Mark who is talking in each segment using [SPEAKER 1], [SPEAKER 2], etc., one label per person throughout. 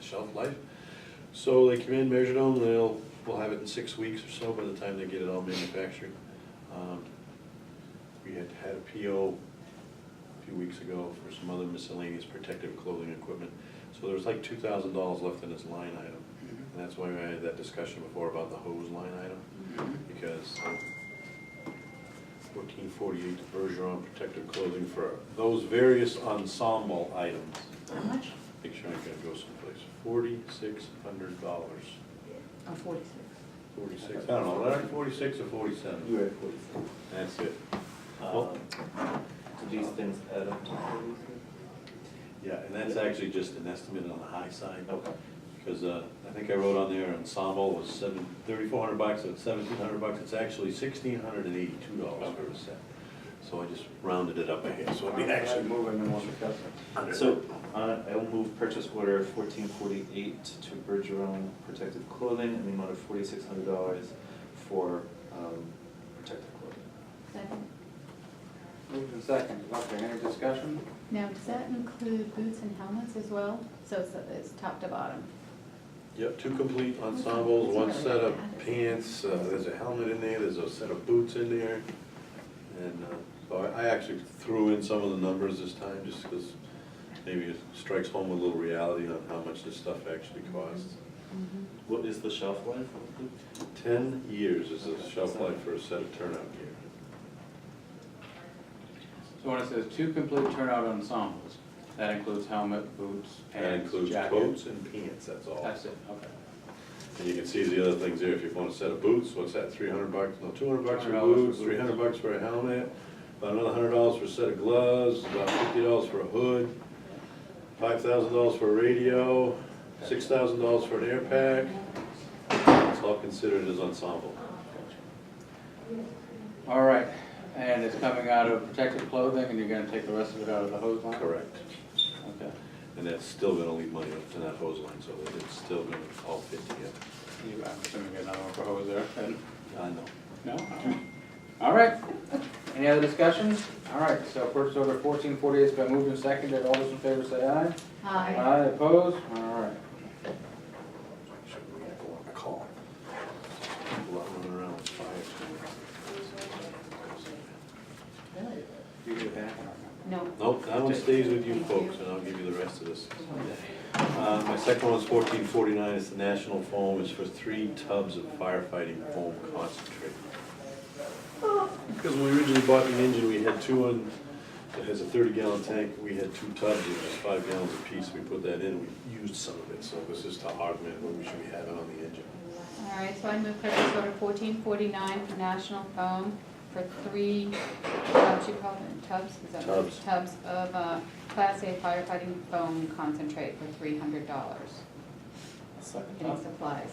[SPEAKER 1] shelf life. So they come in, measure them, they'll, we'll have it in six weeks or so by the time they get it all manufactured. Um, We had had a PO a few weeks ago for some other miscellaneous protective clothing equipment. So there was like two thousand dollars left in this line item. And that's why we had that discussion before about the hose line item, because fourteen forty-eight Bergeron protective clothing for those various ensemble items.
[SPEAKER 2] How much?
[SPEAKER 1] Make sure I'm gonna go someplace, forty-six hundred dollars,
[SPEAKER 2] Oh, forty-six.
[SPEAKER 1] forty-six, I don't know, was that forty-six or forty-seven?
[SPEAKER 3] You were at forty-seven.
[SPEAKER 1] That's it. Well-
[SPEAKER 3] Um, Do these things add up to forty-seven?
[SPEAKER 1] Yeah, and that's actually just an estimate on the high side,
[SPEAKER 3] Okay.
[SPEAKER 1] because uh, I think I wrote on there ensemble was seven, thirty-four hundred bucks, it's seventeen hundred bucks, it's actually sixteen hundred and eighty-two dollars for a set. So I just rounded it up a hair, so it'd be actually.
[SPEAKER 4] Moving in one
[SPEAKER 1] under-
[SPEAKER 3] So, uh, I will move purchase order fourteen forty-eight to Bergeron Protective Clothing in the amount of forty-six hundred dollars for, um, protective clothing.
[SPEAKER 2] Second.
[SPEAKER 4] Moved in second, okay, any discussion?
[SPEAKER 2] Now, does that include boots and helmets as well? So it's, it's top to bottom?
[SPEAKER 1] Yep, two complete ensembles, one
[SPEAKER 2] It's
[SPEAKER 1] set of
[SPEAKER 2] really bad.
[SPEAKER 1] pants, uh, there's a helmet in there, there's a set of boots in there. And uh, so I- I actually threw in some of the numbers this time, just because maybe it strikes home with a little reality on how much this stuff actually costs.
[SPEAKER 3] What is the shelf life of the
[SPEAKER 1] Ten years is the shelf life for a set of turnout gear.
[SPEAKER 5] So when it says two complete turnout ensembles, that includes helmet, boots,
[SPEAKER 1] That
[SPEAKER 5] pants,
[SPEAKER 1] includes
[SPEAKER 5] jacket?
[SPEAKER 1] coats and pants, that's all.
[SPEAKER 5] That's it, okay.
[SPEAKER 1] And you can see the other things there, if you want a set of boots, what's that, three hundred bucks, no, two hundred bucks for
[SPEAKER 5] $200 for
[SPEAKER 1] boots,
[SPEAKER 5] boots.
[SPEAKER 1] three hundred bucks for a helmet, about another hundred dollars for a set of gloves, about fifty dollars for a hood, five thousand dollars for a radio, six thousand dollars for an air pack. It's all considered as ensemble.
[SPEAKER 5] All right, and it's coming out of protective clothing, and you're gonna take the rest of it out of the hose line?
[SPEAKER 1] Correct.
[SPEAKER 5] Okay.
[SPEAKER 1] And that's still gonna leave money up to that hose line, so it's still gonna all fit together.
[SPEAKER 5] You- I'm assuming you got another one for hose there, then?
[SPEAKER 1] I know.
[SPEAKER 5] No? All right, any other discussions? All right, so purchase order fourteen forty eight's been moved and seconded, all those in favor say aye.
[SPEAKER 2] Aye.
[SPEAKER 5] Aye, opposed? All right.
[SPEAKER 1] Should we go on a call? People out running around with fires.
[SPEAKER 2] Really?
[SPEAKER 5] You get that one.
[SPEAKER 2] No.
[SPEAKER 1] Nope, that one stays with you folks, and I'll give you the rest of this. Uh, My second one's fourteen forty-nine, it's the national foam, it's for three tubs of firefighting foam concentrate. Because when we originally bought the engine, we had two on, it has a thirty gallon tank, we had two tubs, it was five gallons apiece, we put that in, we used some of it, so this is to augment what we should be having on the engine.
[SPEAKER 2] All right, so I move purchase order fourteen forty-nine for National Foam for three, tubs, you call them tubs? Is that what-
[SPEAKER 1] Tubs.
[SPEAKER 2] Tubs of, uh, Class A firefighting foam concentrate for three hundred dollars,
[SPEAKER 3] second
[SPEAKER 2] getting supplies.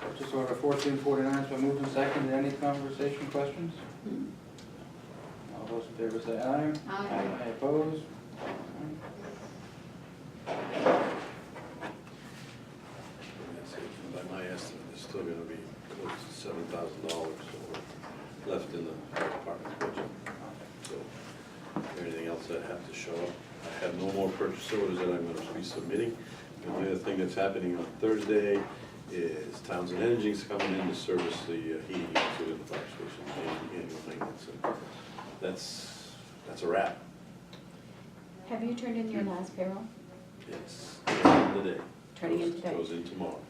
[SPEAKER 5] Purchase order fourteen forty-nine's been moved and seconded, any conversation, questions? All those in favor say aye.
[SPEAKER 2] Aye.
[SPEAKER 5] I oppose.
[SPEAKER 1] That's it. By my estimate, it's still gonna be close to seven thousand dollars left in the fire department's budget. So, everything else that have to show up. I have no more purchase orders that I'm gonna be submitting. The only other thing that's happening on Thursday is Townsend Energy's coming in to service the uh, heating unit in the fire station, and the annual maintenance. And That's, that's a wrap.
[SPEAKER 2] Have you turned in your last payroll?
[SPEAKER 1] It's the end of the day.
[SPEAKER 2] Turning in
[SPEAKER 1] Goes-
[SPEAKER 2] today.
[SPEAKER 1] Goes in tomorrow.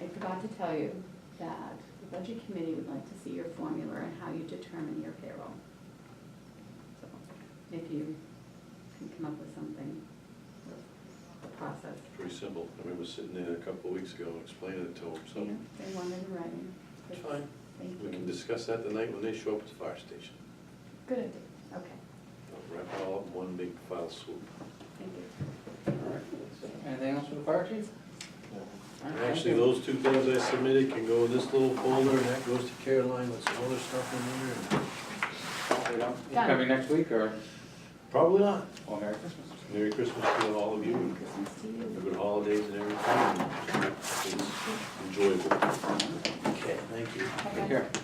[SPEAKER 2] I forgot to tell you that the budget committee would like to see your formula and how you determine your payroll. So If you can come up with something, with the process.
[SPEAKER 1] Pretty simple. I remember sitting there a couple of weeks ago and explaining it to them,
[SPEAKER 2] You
[SPEAKER 1] so.
[SPEAKER 2] know, They want it in writing.
[SPEAKER 1] It's fine.
[SPEAKER 2] Thank
[SPEAKER 1] We can
[SPEAKER 2] you.
[SPEAKER 1] discuss that tonight when they show up at the fire station.
[SPEAKER 2] Good idea, okay,
[SPEAKER 1] I'll Wrap it all up in one big file swoop.
[SPEAKER 2] thank you.
[SPEAKER 5] Anything else for the fire chief? All right, thank
[SPEAKER 1] Actually,
[SPEAKER 5] you.
[SPEAKER 1] those two things I submitted can go in this little folder, and that goes to Caroline with some other stuff in there.
[SPEAKER 5] We don't- you
[SPEAKER 2] Done.
[SPEAKER 5] Coming next week or,
[SPEAKER 1] Probably not.
[SPEAKER 5] well, Merry Christmas.
[SPEAKER 1] Merry Christmas to all of you,
[SPEAKER 2] Merry
[SPEAKER 1] and
[SPEAKER 2] Christmas to
[SPEAKER 1] have
[SPEAKER 2] you.
[SPEAKER 1] good holidays and everything. and It's enjoyable. Okay, thank you.
[SPEAKER 2] Bye-bye.
[SPEAKER 5] Take care.